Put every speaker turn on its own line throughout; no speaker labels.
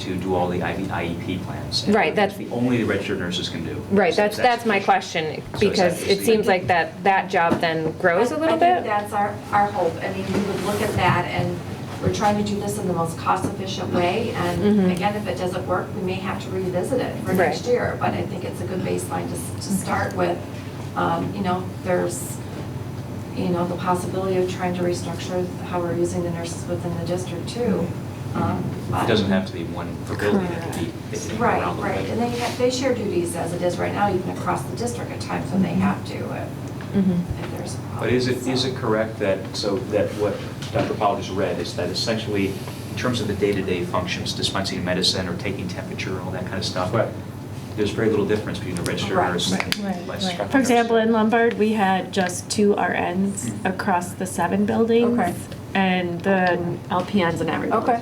to do all the IV IEP E plans. and
Right, that's-
the Only the registered nurses can do.
Right,
So
that's, that's my
the-
question,
So is that
because
just
it
the-
seems like that, that job then grows a
I-
little
I think
bit?
that's our, our hope. I mean, we would look at that, and we're trying to do this in the most cost-efficient way. And
Mhm.
again, if it doesn't work, we may have to revisit it for
Right.
next year. But I think it's a good baseline to, s- to start with. Um, You know, there's, you know, the possibility of trying to restructure how we're using the nurses within the district too.
Mm-hmm.
Um,
It
but-
doesn't have to be one per building, it could be. it could be
Right,
around the
right,
building.
and they have, they share duties as it is right now, even across the district at times when they
Mm-hmm.
have to, if,
Mhm.
if there's a problem.
But is it, is
so.
it correct that, so that what Dr. Powell just read is that essentially, in terms of the day-to-day functions, dispensing medicine or taking temperature and all that kind of stuff?
Right.
There's very little difference between a registered
Right.
nurse and
Right,
a
right.
licensed
For
nurse.
For example, in Lombard, we had just two RNs across the seven buildings.
Okay.
And the LPNs in every building.
Okay.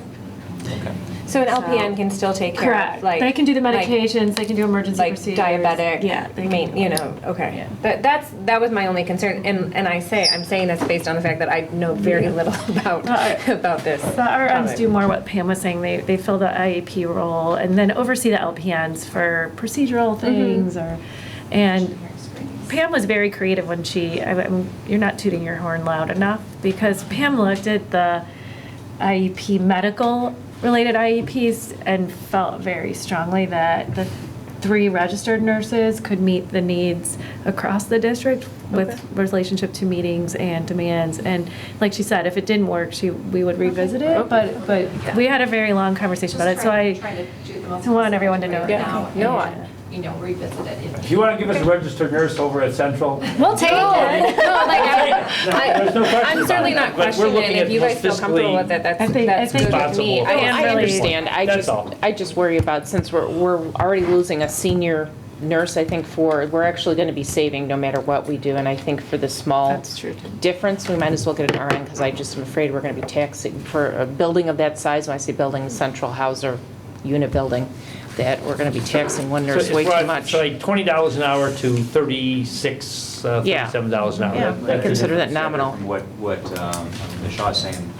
Okay.
So an
So-
LPN can still take care of,
Correct.
like...
They can do the
like-
medications, they can do emergency
Like
procedures.
diabetic,
Yeah. they
I mean,
can-
you know, okay.
Yeah.
But that's, that was my only concern, and, and I say, I'm saying this based on the fact that I know very little about,
Well, I-
about this.
The RNs
topic.
do more what Pam was saying, they, they fill the IEP role and then oversee the LPNs for procedural things or, and Pam was very creative when she, I, I'm- you're not tooting your horn loud enough, because Pam looked at the E IEP, medical-related IEPs, E and felt very strongly that the three registered nurses could meet the needs across the district
Okay.
with relationship to meetings and demands, and like she said, if it didn't work, she, we would revisit it, but, but we had a very long conversation about it, so I.
Just trying to- trying to do the most
I want everyone to
cost-effective way
know that.
now
Yeah. No, I-
and, You know, revisit it. if-
If you want to give us a registered nurse over at Central,
We'll take it. No, like, I-
There's no
I-
question
I'm certainly not
about it, but we're
questioning
looking
it. If
at
you guys feel
most
comfortable
fiscally
with it, that's,
I think- I
that's
think-
good with me.
Responsible.
I
No,
am
I
really-
understand, I
That's
just,
all.
I just worry about, since we're, we're already losing a senior nurse, I think for, we're actually gonna be saving no matter what we do, and I think for the small
That's true, too.
difference, we might as well get an RN, because I just am afraid we're gonna be taxing, for a building of that size, when I say building, central house or unit building, that we're gonna be taxing one
So
nurse way
it's
too
right-
much.
So like twenty dollars an hour to thirty-six, uh,
Yeah.
thirty-seven dollars an hour.
Yeah,
That-
I
that's
consider
it.
that nominal.
From what, what um, Nishad's saying,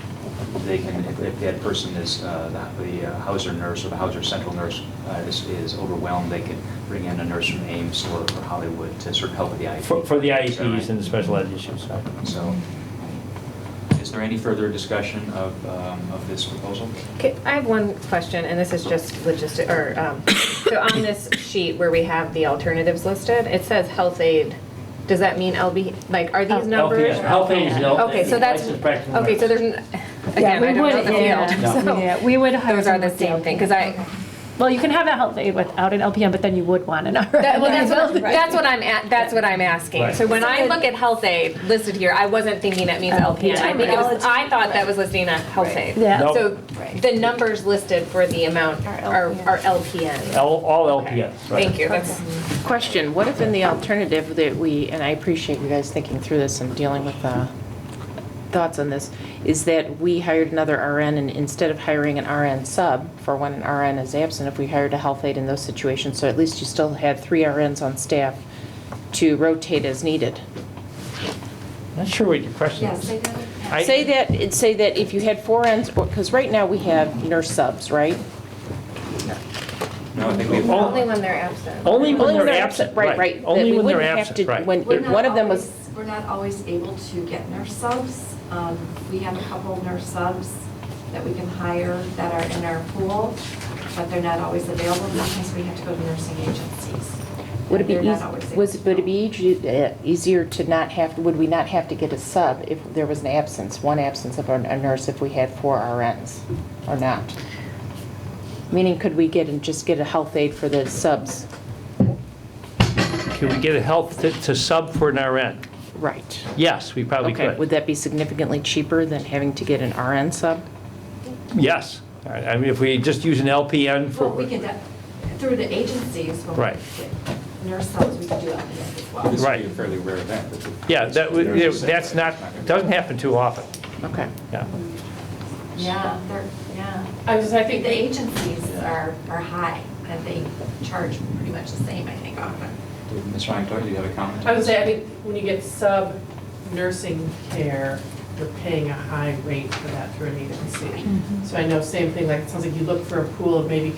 they can, if- if that person is, uh, the the uh, Hauser nurse or the Hauser Central nurse uh, is is overwhelmed, they can bring in a nurse from Ames or or Hollywood to sort of help with the IEP.
For, for the
Is that
IEPs
right?
and the special ed issues, right.
So, is there any further discussion of, um, of this proposal?
Okay, I have one question, and this is just logistic, or, um, so on this sheet where we have the alternatives listed, it says health aid. Does that mean LB, like, are these numbers?
LPN, Health aides and LPNs.
Okay, so that's,
licensed practical
okay, so
nurses.
there's, n- again,
we
I don't know
would-
the
yeah,
field, so
yeah, we would hire
Those are the
them
same
with
thing, because I,
Well, you can have a health aid without an LPN, but then you would want an RN.
that, well, that's what, that's what I'm, at- that's what I'm asking.
Right.
So when I look at health aid listed here, I wasn't thinking that means LPN. I think it was, I thought that was listing a health aid.
Yeah.
Nope.
So the numbers listed for the amount are, are LPN.
All, all LPNs, right.
Thank you, that's.
Question, what if in the alternative that we, and I appreciate you guys thinking through this and dealing with uh, thoughts on this, is that we hired another RN and instead of hiring an RN sub for when an RN is absent, if we hired a health aide in those situations, so at least you still had three RNs on staff to rotate as needed?
Not sure what your question
Yes,
is.
they got it.
I-
Say that, say that if you had four RNs, because right now we have nurse subs, right?
No, I think we've.
Oh.
when they're absent.
Only when
Only
they're absent, right.
Right, right. that
Only
we
when they're
wouldn't have
absent,
to-
right.
When
We're
if
not
one of them was.
always- We're not always able to get nurse subs. Um, We have a couple nurse subs that we can hire that are in our pool, but they're not always available because we have to go to nursing agencies.
Would it be,
They're not
eas-
always
was,
able
would
to
it be easy- eh, easier to not have, would we not have to get a sub if there was an absence, one absence of a a nurse if we had four RNs or not? Meaning, could we get and just get a health aide for the subs?
Can we get a health to- to sub for an RN?
Right.
Yes, we probably
Okay, would
could.
that be significantly cheaper than having to get an RN sub?
Yes. All right, I mean, if we just use an LPN for.
Well, we can, de- through the agencies, when
Right.
we get nurse subs, we can do LPNs as well.
This would be
Oh, Right.
a fairly rare event. that the-
Yeah, that, would-
There's a set,
that's
right?
not, doesn't happen too often,
Okay.
yeah.
Yeah, they're, yeah.
I was, I
I think
think,
the agencies are, are high, and they charge pretty much the same, I think, often.
Ms. Ryan, do you have a comment?
I would say, I think, when you get sub nursing care, you're paying a high rate for that through an agency. So I know, same thing, like, it sounds like you look for a pool of maybe